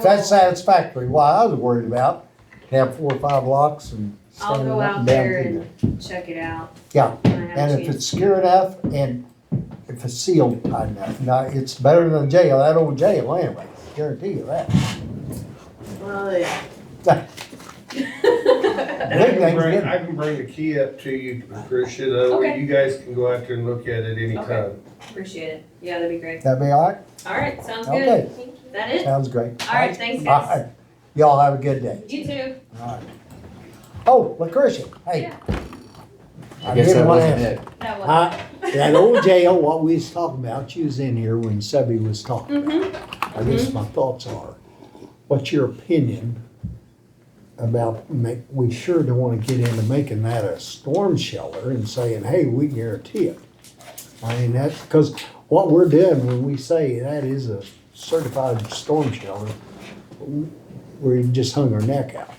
If that's satisfactory, why I was worried about, have four or five locks and. I'll standing go up out and down there through and check it out. Yeah, when I have a And if chance. it's secure enough and if it's sealed tight enough, now it's better than jail, that old jail anyway, guarantee you that. Well, yeah. And I can Everything's bring, good. I can bring the key up to you, Tricia, that way Okay. you guys can go out there and look at it anytime. Appreciate it. Yeah, that'd be great. That'd be all right? All right, sounds Okay. good. Is that it? Sounds great. All right, thanks, All guys. right. Y'all have a good day. You too. All right. Oh, Lucretia, hey. Yeah. I guess didn't that want to wasn't ask. it. That was. Uh, That old jail, what we was talking about, she was in here when Sebby was talking. Mm-hmm. I guess my thoughts are, what's your opinion about make, we sure don't wanna get into making that a storm shelter and saying, hey, we guarantee it. I mean, that's, cause what we're doing when we say that is a certified storm shelter, we just hung our neck out.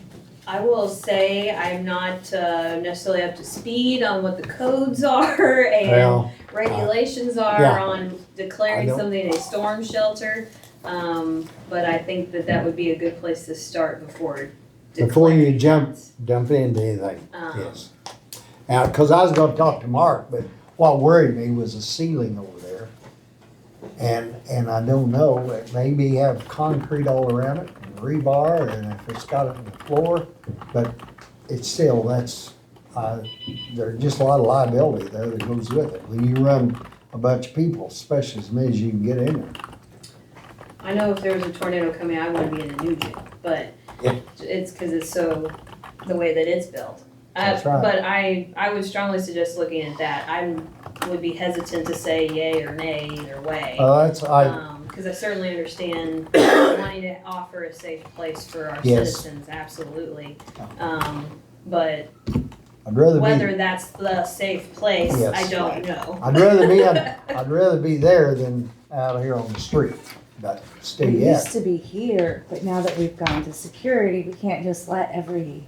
I will say I'm not uh, necessarily up to speed on what the codes are and Well, uh, regulations are yeah. on I declaring don't- something a storm shelter. Um, but I think that that would be a good place to start before Before you declaring jump- it. dump into anything, Um, yes. Now, cause I was gonna talk to Mark, but what worried me was the ceiling over there. And, and I don't know, it maybe have concrete all around it, and rebar, and if it's got it in the floor, but it's still, that's, uh, there's just a lot of liability there that goes with it. When you run a bunch of people, especially as many as you can get in there. I know if there was a tornado coming, I wouldn't be in the new jail, but Yeah. it's because it's so, the way that it's built. Uh, That's right. But I, I would strongly suggest looking at that. I would be hesitant to say yay or nay either way. Uh, that's, I, Because I certainly understand wanting to offer a safe place for our Yes. citizens, absolutely. Um, But I'd rather be. whether that's the safe place, I Yes. don't know. I'd rather be, I'd, I'd rather be there than out here on the street, but stay It yeah. used to be here, but now that we've gone to security, we can't just let every,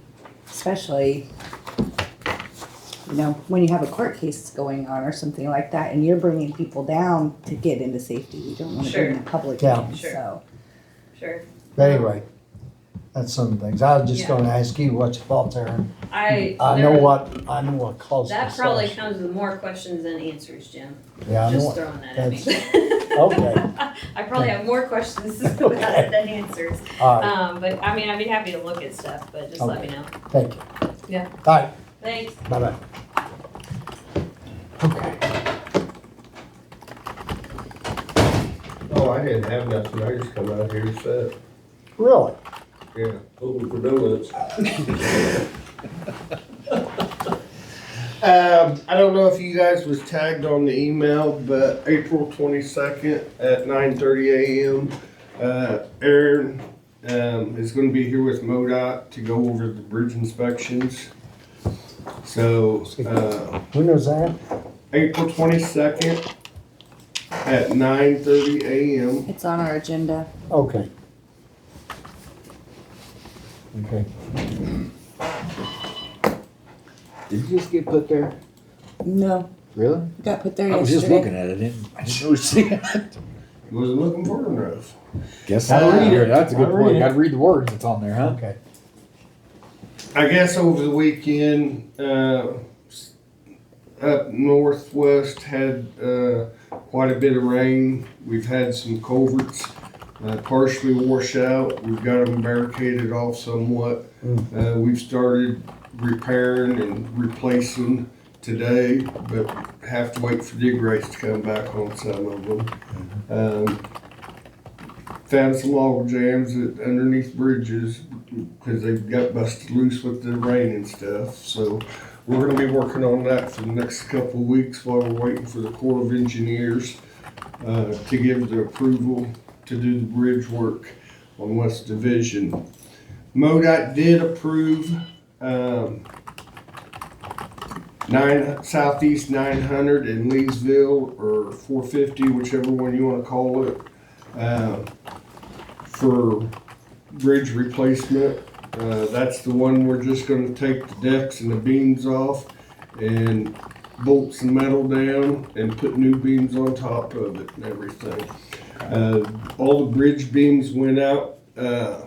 especially, you know, when you have a court case going on or something like that, and you're bringing people down to get into safety, you don't wanna Sure. bring the public Yeah. in, Sure. so. Sure. But anyway, that's some of the things. I was just Yeah. gonna ask you what your thoughts are. I. I there- know what, I know what caused the That probably slash. comes with more questions than answers, Jim. Yeah, I know. Just it. throwing that at me. okay. I probably have more questions about Okay. it than answers. All right, Um, but I mean, I'd be happy to look at stuff, but just let me know. thank you. uh, Yeah. All right, Thanks. bye-bye. Okay, Oh, I didn't have nothing, I just come out here and set, really? yeah. Hoping for donuts. Um, I don't know if you guys was tagged on the email, but April twenty-second at nine thirty AM, uh, Aaron, um, is gonna be here with MoDOT to go over the bridge inspections. So, uh, When was that? April twenty-second at nine thirty AM. It's on our agenda. Okay. Okay. Did you just get put there? No, Really? it got put there I was just yesterday. looking at it. Didn't, I didn't really see it. You Wasn't looking for enough. Guess I'll read it. That's a good I'll read point. it. Got to read the words that's on there, huh? Okay. I guess over the weekend, uh, s- up northwest had uh, quite a bit of rain. We've had some culverts uh, partially wash out. We've got them barricaded off somewhat. Uh, we've started repairing and replacing today, but have to wait for dig rates to come back on some of them. Um, found some log jams that- underneath bridges because they got busted loose with the rain and stuff. So we're gonna be working on that for the next couple of weeks while we're waiting for the Corps of Engineers uh, to give the approval to do the bridge work on West Division. MoDOT did approve um, nine, Southeast nine hundred in Leesville or four fifty, whichever one you wanna call it, um, for bridge replacement. Uh, that's the one we're just gonna take the decks and the beams off and bolt some metal down and put new beams on top of it and everything. Uh, all the bridge beams went out uh,